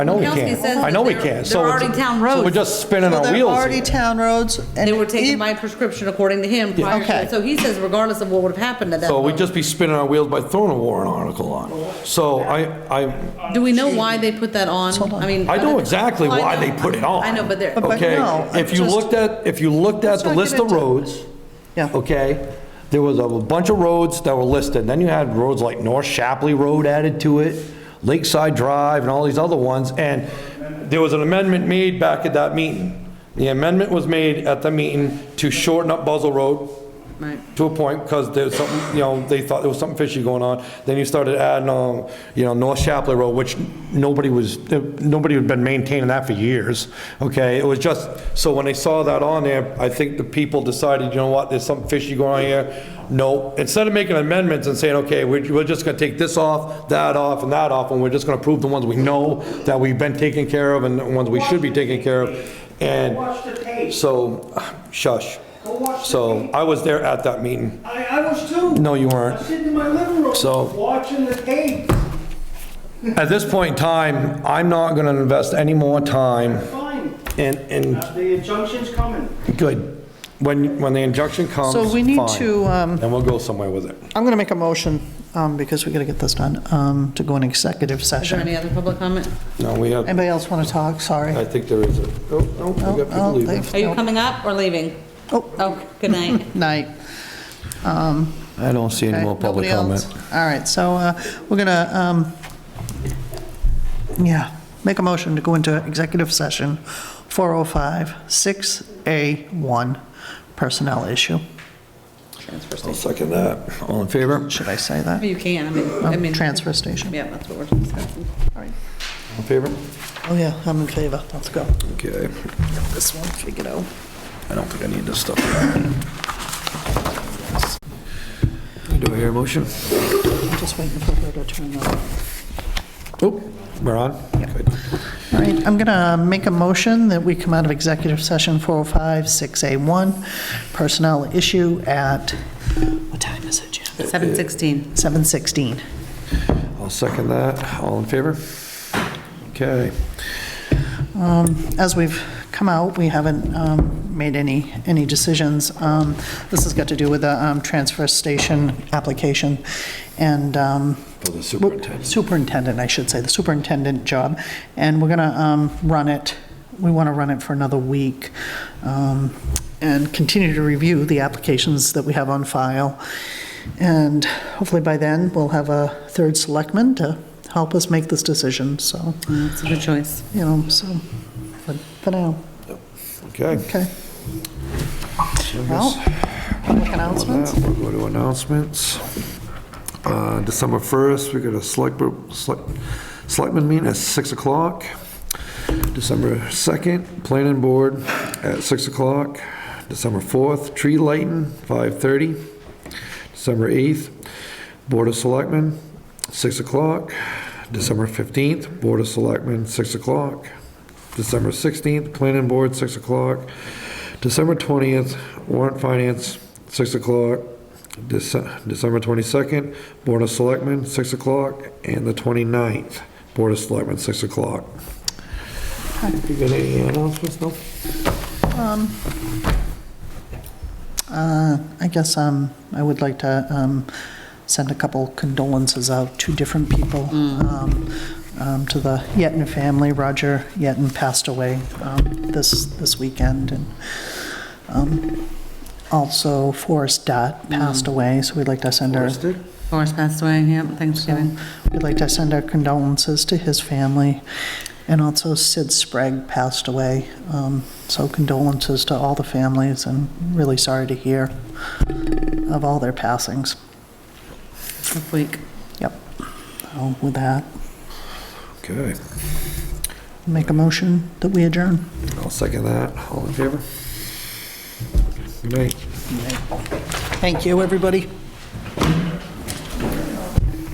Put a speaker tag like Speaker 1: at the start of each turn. Speaker 1: I know we
Speaker 2: Kelsey
Speaker 1: can't.
Speaker 2: says
Speaker 1: I know
Speaker 2: that
Speaker 1: we
Speaker 2: they're-
Speaker 1: can't. So
Speaker 2: they're
Speaker 1: we're
Speaker 2: already
Speaker 1: ju-
Speaker 2: town
Speaker 1: So we're
Speaker 2: roads.
Speaker 1: just spinning
Speaker 3: Well,
Speaker 1: our
Speaker 3: they're
Speaker 1: wheels.
Speaker 3: already town roads. and
Speaker 2: They were taking
Speaker 3: ev-
Speaker 2: my prescription according to him prior to,
Speaker 3: Okay.
Speaker 2: that. so he says regardless of what would have happened at that
Speaker 1: So we'd
Speaker 2: moment.
Speaker 1: just be spinning our wheels by throwing a warrant article on. So I, I,
Speaker 2: Do we know why they put that on? I mean.
Speaker 1: I know exactly
Speaker 2: Well,
Speaker 1: why
Speaker 2: I
Speaker 1: they
Speaker 2: know.
Speaker 1: put it on.
Speaker 2: I know, but they're.
Speaker 3: But-
Speaker 1: Okay,
Speaker 3: no,
Speaker 1: if you
Speaker 3: just-
Speaker 1: looked at, if you looked at
Speaker 3: Let's
Speaker 1: the
Speaker 3: not
Speaker 1: list
Speaker 3: get
Speaker 1: of
Speaker 3: into it.
Speaker 1: roads,
Speaker 3: Yeah.
Speaker 1: okay, there was a bunch of roads that were listed. Then you had roads like North Shapley Road added to it, Lakeside Drive and all these other ones. And there was an amendment made back at that meeting. The amendment was made at the meeting to shorten up Buzzell Road
Speaker 2: Right.
Speaker 1: to a point, because there's something, you know, they thought there was something fishy going on. Then you started adding, um, you know, North Chapley Road, which nobody was, nobody had been maintaining that for years, okay? It was just, so when they saw that on there, I think the people decided, you know what, there's something fishy going on here. No, instead of making amendments and saying, okay, we're, we're just gonna take this off, that off, and that off, and we're just gonna prove the ones we know that we've been taking care of and the ones we should be taking care of.
Speaker 4: Watch the
Speaker 1: And
Speaker 4: tape.
Speaker 1: so, shush.
Speaker 4: Go watch the
Speaker 1: So
Speaker 4: tape.
Speaker 1: I was there at that meeting.
Speaker 4: I, I was too.
Speaker 1: No, you weren't.
Speaker 4: I'm sitting in my living room.
Speaker 1: So-
Speaker 4: Watching the tape.
Speaker 1: At this point in time, I'm not going to invest any more time
Speaker 4: Fine.
Speaker 1: in, in,
Speaker 4: Uh, The injunction's coming.
Speaker 1: good. When, when the injunction comes,
Speaker 3: So we need
Speaker 1: fine.
Speaker 3: to, um,
Speaker 1: And we'll go somewhere with it.
Speaker 3: I'm going to make a motion, um, because we got to get this done, um, to go in executive
Speaker 2: Is there
Speaker 3: session.
Speaker 2: any other public comment?
Speaker 1: No, we have,
Speaker 3: Anybody else want to talk? Sorry.
Speaker 1: I think there is a, oh, no, we got people
Speaker 3: Oh,
Speaker 1: leaving.
Speaker 3: they've-
Speaker 2: Are you
Speaker 3: nope.
Speaker 2: coming up or leaving?
Speaker 3: Oh.
Speaker 2: Oh, good night.
Speaker 3: Night.
Speaker 1: I don't see any
Speaker 3: Okay,
Speaker 1: more public
Speaker 3: nobody else?
Speaker 1: comment.
Speaker 3: All right, so uh, we're going to, yeah, make a motion to go into executive session, 405-6A1, personnel issue.
Speaker 1: I'll second that. All in favor?
Speaker 3: Should I say that?
Speaker 2: You can, I mean, I mean.
Speaker 3: Oh, Transfer station.
Speaker 2: Yeah, that's what we're discussing.
Speaker 3: All right.
Speaker 1: All in favor?
Speaker 3: Oh, yeah, I'm in favor. Let's go.
Speaker 1: Okay.
Speaker 3: This one, figure it out.
Speaker 1: I don't think I need this stuff. Do I hear a motion?
Speaker 3: I'm just waiting for her to turn on.
Speaker 1: Oop, we're on? Good.
Speaker 3: All right, I'm going to make a motion that we come out of executive session 405-6A1, personnel issue at, what time is it, Jim?
Speaker 2: 7:16.
Speaker 3: 7:16.
Speaker 1: I'll second that. All in favor? Okay.
Speaker 3: As we've come out, we haven't um, made any, any decisions. Um, This has got to do with the um, transfer station application and. um,
Speaker 1: For Oh, the superintendent.
Speaker 3: Superintendent, I should say, the superintendent job. And we're going to run it, we want to run it for another week um, and continue to review the applications that we have on file. And hopefully by then, we'll have a third selectman to help us make this decision, so,
Speaker 2: That's a good choice.
Speaker 3: you know, so, but for now.
Speaker 1: Okay.
Speaker 3: Okay. Well, public announcements?
Speaker 1: We'll go to announcements. Uh, December 1st, we got a select, select- selectmen meeting at 6 o'clock. December 2nd, planning board at 6 o'clock. December 4th, tree lighting, 5:30. December 8th, board of selectmen, 6 o'clock. December 15th, board of selectmen, 6 o'clock. December 16th, planning board, 6 o'clock. December 20th, warrant finance, 6 o'clock. Dece- December 22nd, Board of Selectmen, 6 o'clock. And the 29th, Board of Selectmen, 6 o'clock. You got any announcements, no?
Speaker 3: Uh, I guess um, I would like to um, send a couple condolences out to different people, um, um, to the Yeton family. Roger Yeton passed away um, this, this weekend, and um, also Forrest Dot passed away, so we'd like to send our,
Speaker 2: Forrest passed away, yeah, Thanksgiving.
Speaker 3: we'd like to send our condolences to his family, and also Sid Sprague passed away, Um, so condolences to all the families, and really sorry to hear of all their passings.
Speaker 2: This week.
Speaker 3: Yep. So With that,
Speaker 1: Okay,
Speaker 3: make a motion that we adjourn.
Speaker 1: I'll second that. All in favor? Good night.
Speaker 3: Thank you, everybody.